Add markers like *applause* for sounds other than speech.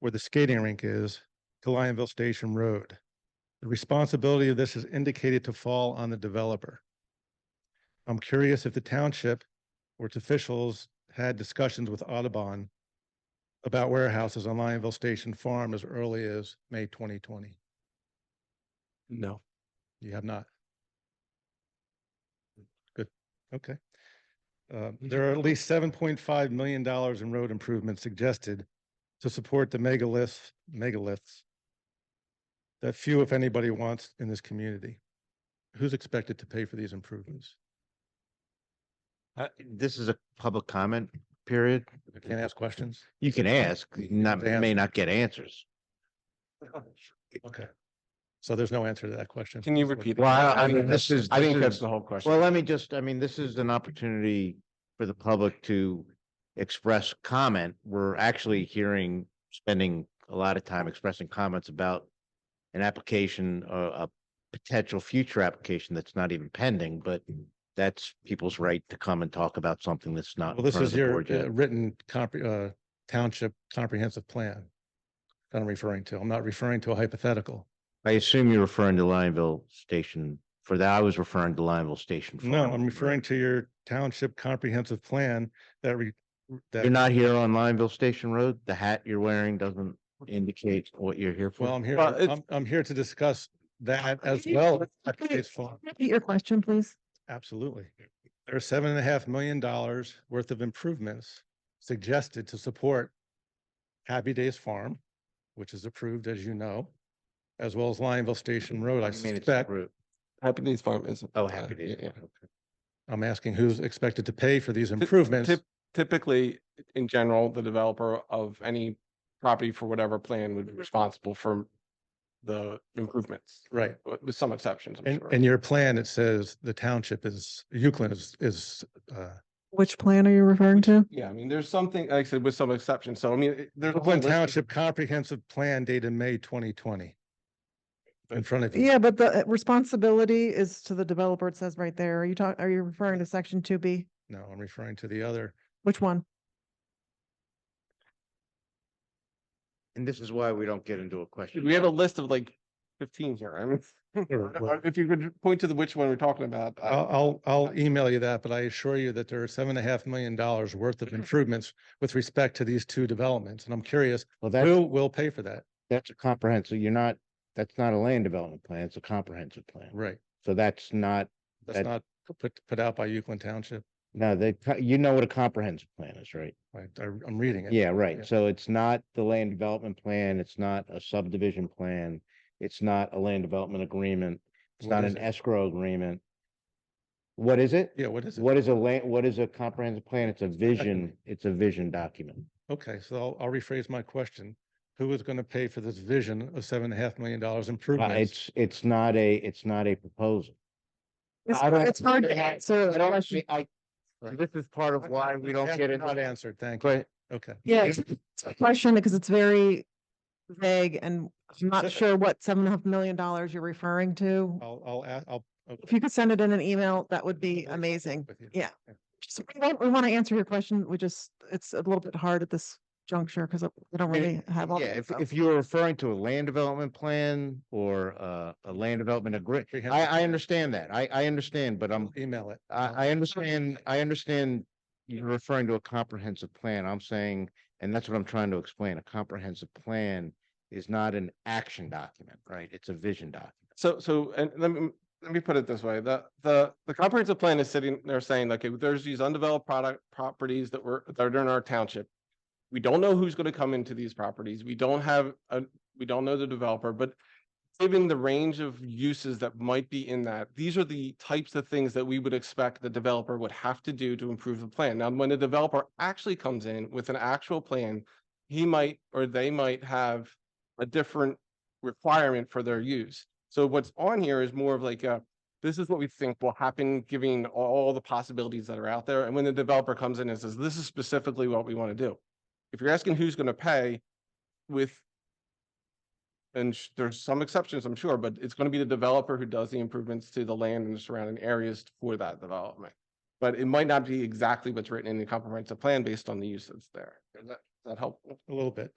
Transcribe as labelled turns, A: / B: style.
A: where the skating rink is to Lionville Station Road. The responsibility of this is indicated to fall on the developer. I'm curious if the township or its officials had discussions with Audubon about warehouses on Lionville Station Farm as early as May twenty twenty.
B: No.
A: You have not? Good, okay. Uh,
B: Mm-hmm.
A: There are at least seven point five million dollars in road improvements suggested to support the megaliths, megaliths that few, if anybody, wants in this community. Who's expected to pay for these improvements?
C: Uh, this is a public comment period.
A: Can't ask questions?
C: You can ask, not,
A: They
C: may
A: ask.
C: not get answers.
A: Okay. So there's no answer to that question.
B: Can you repeat?
C: Well, I- I
B: think
C: mean, this
B: that's-
C: is-
B: I think
C: this
B: that's
C: is-
B: the whole question.
C: Well, let me just, I mean, this is an opportunity for the public to express comment. We're actually hearing, spending a lot of time expressing comments about an application, uh, a potential future application that's not even pending, but that's people's right to come and talk about something that's not.
A: Well,
C: in
A: this
C: front
A: is
C: of the
A: your
C: board yet.
A: uh, written compre- uh, township comprehensive plan that I'm referring to. I'm not referring to a hypothetical.
C: I assume you're referring to Lionville Station. For that, I was referring to Lionville Station.
A: No,
C: Farm.
A: I'm referring to your township comprehensive plan that re.
C: You're
A: That,
C: not here on Lineville Station Road? The hat you're wearing doesn't indicate what you're here
A: well,
C: for?
A: I'm here,
B: Well, it's-
A: I'm, I'm here to discuss that as well. as Cascades Farm.
D: Repeat your question, please.
A: Absolutely. There are seven and a half million dollars worth of improvements suggested to support Happy Days Farm, which is approved, as you know, as well as Lionville Station Road. I
C: You mean it's
A: suspect,
C: approved.
B: Happy Days Farm is.
C: Oh,
B: uh,
C: happy days.
B: yeah, yeah.
A: I'm asking who's expected to pay for these improvements.
B: Typ- Typically, in general, the developer of any property for whatever plan would be responsible for the improvements,
A: Right.
B: with with some exceptions, I'm
A: And,
B: sure.
A: and your plan, it says the township is, Euclid is, is, uh,
D: Which plan are you referring to?
B: Yeah, I mean, there's something, like I said, with some exceptions. So I mean, it- there's. a whole
A: Brooklyn
B: list of-
A: Township Comprehensive Plan dated May twenty twenty. In front of you.
D: Yeah, but the uh, responsibility is to the developer. It says right there. Are you talking, are you referring to section two B?
A: No, I'm referring to the other.
D: Which one?
C: And this is why we don't get into a question.
B: We have a list of like fifteen here. *laughs* I mean,
A: Sure.
B: if you could point to the which one we're talking about. I-
A: I'll, I'll, I'll email you that, but I assure you that there are seven and a half million dollars worth
B: *clears throat*
A: of improvements with respect to these two developments. And I'm curious,
C: Well,
A: who
C: that's,
A: will pay for that?
C: that's a comprehensive, you're not, that's not a land development plan, it's a comprehensive plan.
A: Right.
C: So that's not,
A: That's
C: That-
A: not put, put out by Euclid Township.
C: no, they, you know what a comprehensive plan is, right?
A: I, I, I'm reading it.
C: Yeah,
A: Yeah.
C: right. So it's not the land development plan, it's not a subdivision plan, it's not a land development agreement, it's
A: What
C: not
A: is
C: an
A: it?
C: escrow agreement. What is it?
A: Yeah, what is it?
C: What is a land, what is a comprehensive plan? It's a vision, it's a vision document.
A: Okay, so I'll, I'll rephrase my question. Who is going to pay for this vision of seven and a half million dollars
C: Uh,
A: improvements?
C: It's, it's not a, it's not a proposal.
D: It's
C: I don't-
D: it's hard to
C: I-
D: answer.
C: I
D: that
C: don't *laughs*
D: question.
C: see- I-
A: Right.
C: This is part of why we don't get
A: Not
C: into.
A: answered, thank you.
C: But
A: Okay.
D: Yeah, it's it's a question because it's very vague and I'm
A: So-
D: not sure what seven and a half million dollars you're referring to.
C: Oh.
A: I'll, I'll, a- I'll. I'll-
D: If you could send it in an email, that would be
A: I'll work
D: amazing.
A: with you.
D: yeah. Just- We want, we want to answer your question. We just, it's a little bit hard at this juncture because we don't
C: mean,
D: really have all.
C: yeah,
D: the
C: if,
D: info.
C: if you're referring to a land development plan or uh, a land development agreement, I, um, I understand that. I, I understand, but I'm,
A: Email it.
C: I, I understand, I understand you're referring to a comprehensive plan. I'm saying, and that's what I'm trying to explain, a comprehensive plan is not an action document, right? It's a vision document.
B: So, so, and let me, let me put it this way, the, the, the comprehensive plan is sitting there saying, okay, there's these undeveloped product, properties that were, that are in our township. We don't know who's gonna come into these properties, we don't have, a we don't know the developer, but given the range of uses that might be in that, these are the types of things that we would expect the developer would have to do to improve the plan. Now, when the developer actually comes in with an actual plan, he might, or they might have a different requirement for their use. So what's on here is more of like a, this is what we think will happen, giving all the possibilities that are out there. And when the developer comes in and says, this is specifically what we want to do. If you're asking who's going to pay with, and sh- there's some exceptions, I'm sure, but it's going to be the developer who does the improvements to the land and the surrounding areas for that development. But it might not be exactly what's written in the comprehensive plan based on the use that's there. Is that, is that helpful?
A: A little bit.